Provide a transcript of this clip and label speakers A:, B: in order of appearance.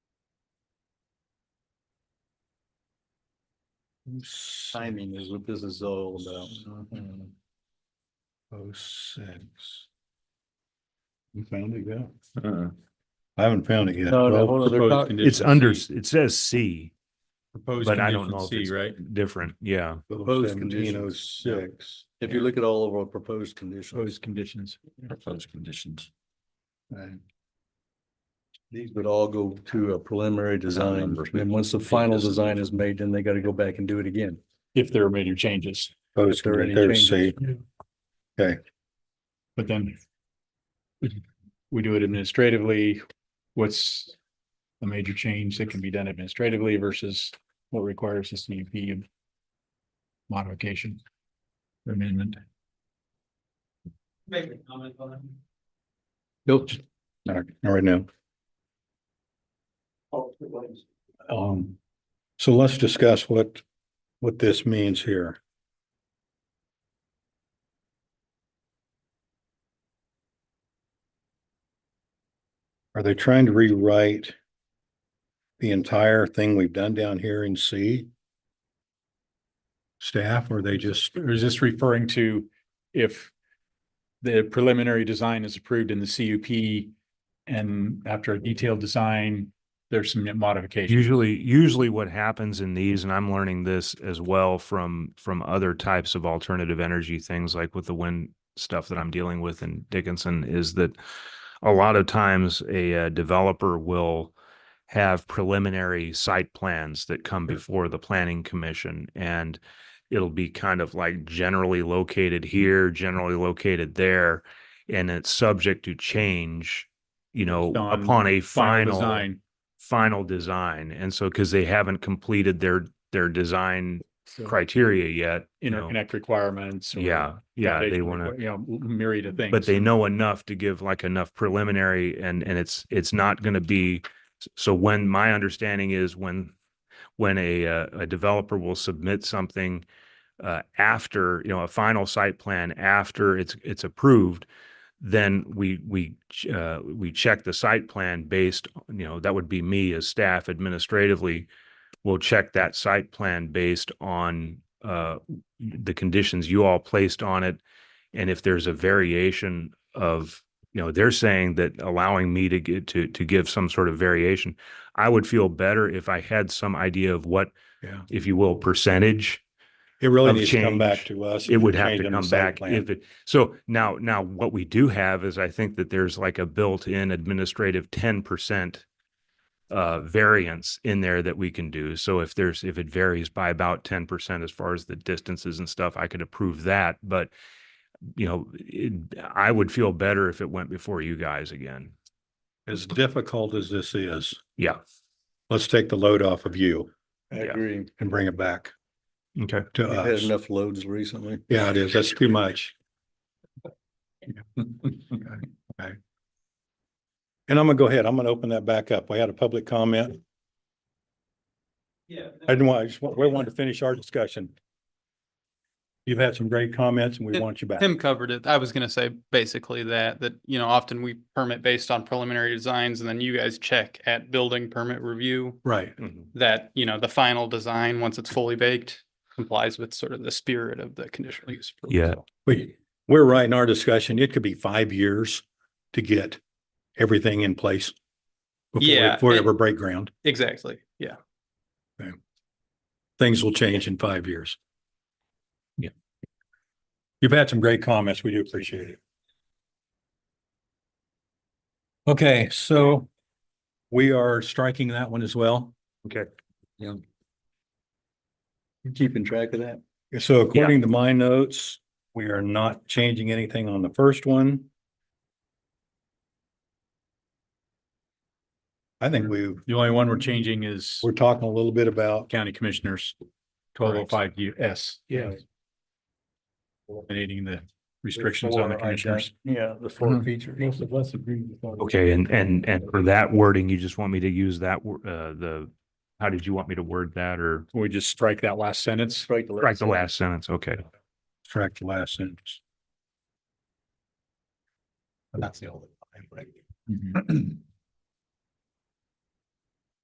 A: Timing is what this is all about. Mm-hmm.
B: Oh, six. You found it, yeah?
C: Uh,
B: I haven't found it yet.
A: No, no,
B: Well,
A: hold on, they're
C: proposed
A: talk-
C: condition
D: It's under,
C: C.
D: it says C,
C: Proposed
D: but I don't know
C: condition
D: if it's
C: C, right?
D: different, yeah.
A: Proposed
B: 17, oh,
A: conditions. Yeah.
B: six.
A: If you look at all of our proposed conditions,
C: conditions. Proposed conditions.
B: Right.
A: these would all go to a preliminary design.
C: numbers.
A: And once the final design is made, then they got to go back and do it again.
E: if there are major changes,
B: Proposed
A: there are any
B: conditions,
A: changes.
B: C. Okay,
E: but then we do it administratively, what's a major change that can be done administratively versus what requires a CUP modification amendment?
F: Make a comment on it.
A: Nope.
B: all right, all right now.
F: Oh, it was.
B: Um, so let's discuss what, what this means here. Are they trying to rewrite the entire thing we've done down here in C? Staff, or they just,
E: Or is this referring to if the preliminary design is approved in the CUP and after a detailed design, there's some modification?
D: Usually, usually what happens in these, and I'm learning this as well from, from other types of alternative energy things like with the wind stuff that I'm dealing with in Dickinson is that a lot of times a uh, developer will have preliminary site plans that come before the planning commission and it'll be kind of like generally located here, generally located there, and it's subject to change, you know,
E: Based on
D: upon a final
E: Design.
D: final design and so because they haven't completed their their design
E: so
D: criteria yet you know.
E: Interconnect requirements. or
D: yeah yeah they
E: foundation
D: want to
E: requir- You know, myriad of things.
D: but they know enough to give like enough preliminary and and it's it's not going to be so when my understanding is when when a uh, a developer will submit something uh, after you know a final site plan after it's it's approved then we we ch- uh, we check the site plan based you know that would be me as staff administratively will check that site plan based on uh, the conditions you all placed on it and if there's a variation of you know they're saying that allowing me to get to to give some sort of variation i would feel better if i had some idea of what
B: Yeah.
D: if you will percentage
B: it really
D: Of
B: needs to come back
D: change.
B: to us.
D: it would have
B: Change
D: to
B: in the
D: come
B: site
D: back
B: plan.
D: if it so now now what we do have is i think that there's like a built-in administrative 10% uh variance in there that we can do so if there's if it varies by about 10% as far as the distances and stuff i could approve that but you know it, i would feel better if it went before you guys again
B: As difficult as this is,
D: yeah
B: let's take the load off of you
A: I
D: Yeah.
A: agree.
B: and bring it back
D: okay
B: to
A: We've had
B: us.
A: enough loads recently.
B: Yeah, it is. That's too much. Okay. And I'm gonna go ahead. I'm gonna open that back up. We had a public comment.
F: Yeah.
B: I didn't want, I just, wa- we wanted to finish our discussion. You've had some great comments and we want you back.
G: Tim covered it. I was gonna say basically that, that, you know, often we permit based on preliminary designs and then you guys check at building permit review
B: Right.
G: that, you know, the final design, once it's fully baked, complies with sort of the spirit of the conditional use. approval.
D: Yeah.
G: So,
B: We, we're right in our discussion. It could be five years to get everything in place. before we-
G: Yeah,
B: Before we
G: and-
B: ever break ground.
G: Exactly, yeah.
B: Things will change in five years.
D: Yeah.
B: You've had some great comments. We do appreciate it. Okay, so we are striking that one as well.
A: You Keeping track of that?
B: So according to my notes, we are not changing anything on the first one. I think we,
E: The only one we're changing is
B: we're talking a little bit about,
E: county commissioners, twelve oh five U S.
A: Yeah.
E: Eliminating the restrictions on the commissioners.
A: Yeah, the four features. Mm-hmm. Most of us agree.
D: okay and and and for that wording you just want me to use that wor- uh the how did you want me to word that or
E: Can We just strike that last sentence.
A: Strike the.
D: right the last sentence okay
B: track the last sentence.
E: Mhm.